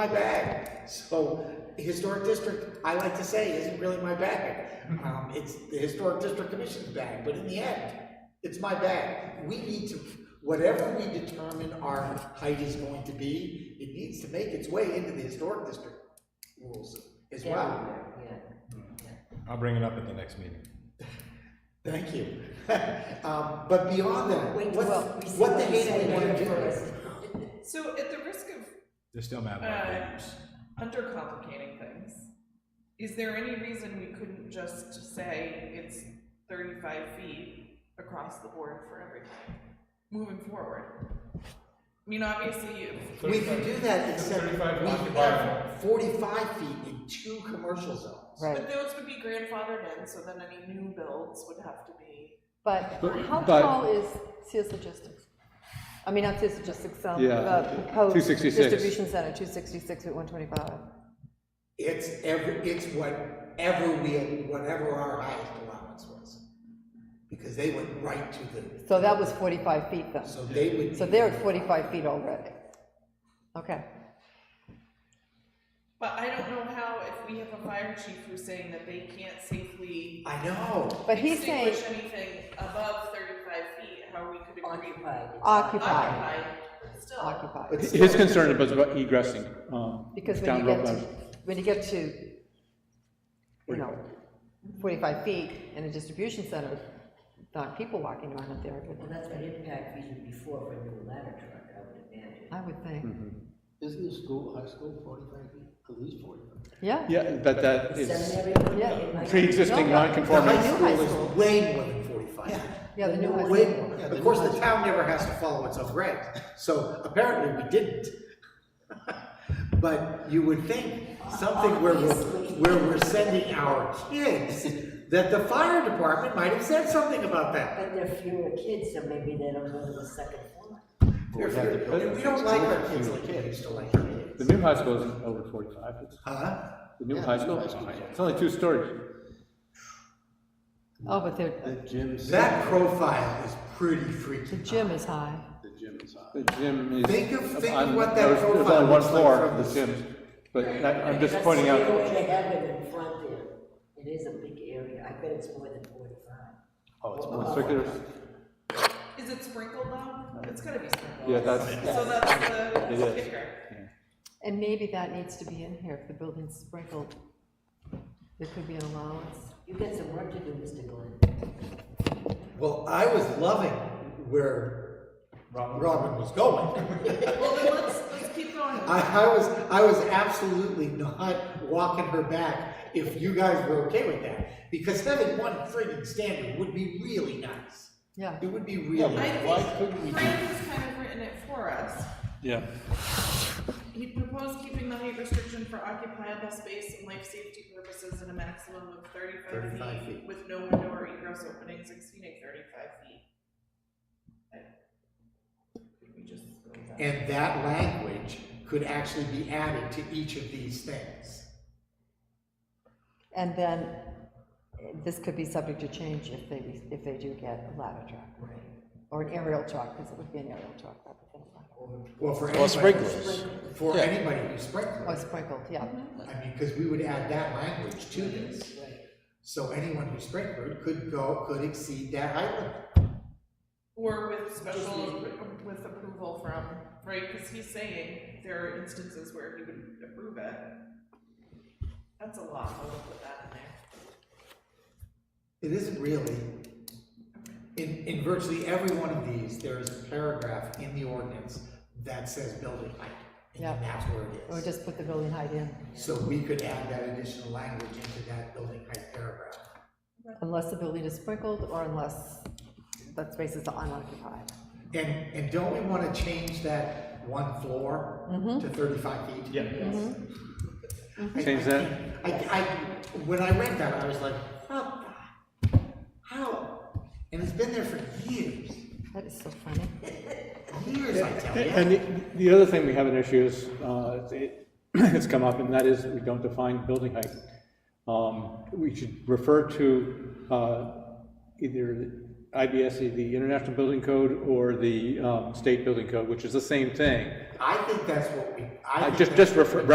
my bag. So historic district, I like to say, isn't really my bag. Um, it's the historic district commission's bag, but in the end, it's my bag. We need to, whatever we determine our height is going to be, it needs to make its way into the historic district rules as well. everywhere, yeah. I'll bring it up at the next meeting. Thank you. Um, but beyond that, Wait, what, well, we what the still heck do we have wanna to do? say first. So at the risk of They're still mad about Uh, papers. undercomplicating things, is there any reason we couldn't just say it's thirty-five feet across the board for everything, moving forward? I mean, obviously, if, We can do that except we Thirty-five have forty-five feet in two commercial zones. but those would be grandfathered in, so then any new builds would have to be. But But- how but- tall is CS Logistics? I mean, not CS Logistics, um, Yeah, the proposed 266. distribution center, two sixty-six at one twenty-five. It's every, it's whatever we, whatever our highest allowance was. Because they went right to the, So that was forty-five feet then. so they would. So they're at forty-five feet already. Okay. But I don't know how, if we have a fire chief who's saying that they can't safely I know, But he's saying extinguish anything above thirty-five feet, how we could agree. Occupied. occupied, Occupied, still. occupied. but still, His concern was about egressing, um, Because when down you get Road to, Road. when you get to, you know, forty-five feet in a distribution center, not people walking around up there, Well, but that's what impact fees would be for, for a new ladder truck, I would imagine. I would think, Isn't the school, high school forty-five feet, at least forty-five? yeah. Yeah, but that is Seminary would be Yeah. in my- pre-existing No, no. the non-conforming. high school high school. is way more than forty-five. Yeah, the new high Way school. more. Yeah, the Of course, new the high town never has to follow its own regs, so apparently we didn't. But you would think something where we're, Obviously. where we're sending our kids, that the fire department might have said something about that. But there are fewer kids, so maybe they don't go to the second floor. They're fear- and we don't like our kids like we used to like our The kids. new high school isn't over forty-five, it's, Huh? the new Yeah, high the new school, high school. it's only two stories. Oh, but they're, The gym's, That profile is pretty The freaky. gym is high. the gym is high. The gym is. Think of- think of on- what that there's- There's profile only one looks like floor from of the this. gym, but that- I'm just That's pointing the out, area They have it in front there. It is a big area. I bet it's more than forty-five. oh, it's more circular, Is it sprinkled though? It's gotta be sprinkled. yeah, that's, So that's the, It is. kicker. And maybe that needs to be in here, if the building's sprinkled, there could be an allowance. You got some work to do, Mr. Glenn. Well, I was loving where Robin was going. Well, then let's, let's keep going. I, I was, I was absolutely not walking her back if you guys were okay with that. Because having one friggin' standard would be really nice. Yeah, It would be really, I nice. think Frank has kind of written it for us. yeah. He proposed keeping the height restriction for occupiable space and life safety purposes at a maximum of thirty-five 35 feet feet. with no window or egress openings exceeding thirty-five feet. I- Could we just go with that? and that language could actually be added to each of these things. and then eh, this could be subject to change if they, if they do get a ladder truck. Right. Or an aerial truck, because it would be an aerial truck, I would think, Well, for Well, anybody, sprinklers. for anybody who sprinklers. or sprinkled, yeah. I mean, because we would add that language to this. So anyone who sprinkled could go, could exceed that height limit. Or with special, with approval from, right, cause he's saying there are instances where he would approve it. That's a lot, I'll put that in there. It isn't really, in, in virtually every one of these, there is a paragraph in the ordinance that says building height. And then Yeah. that's where it Or is. just put the building height in, So we could add that additional language into that building height paragraph. unless the building is sprinkled, or unless that space is unoccupied. And, and don't we wanna change that one floor to thirty-five feet? Yeah. I- Change I that. can't- I, I, when I read that, I was like, how, how? And it's been there for years, That is so funny. years, I tell you. And the, the other thing we have an issue is, uh, it, it's come up, and that is we don't define building height. Um, we should refer to, uh, either IBS, E, the International Building Code, or the, um, State Building Code, which is the same thing. I think that's what we, I I think just, that's just what refer, we-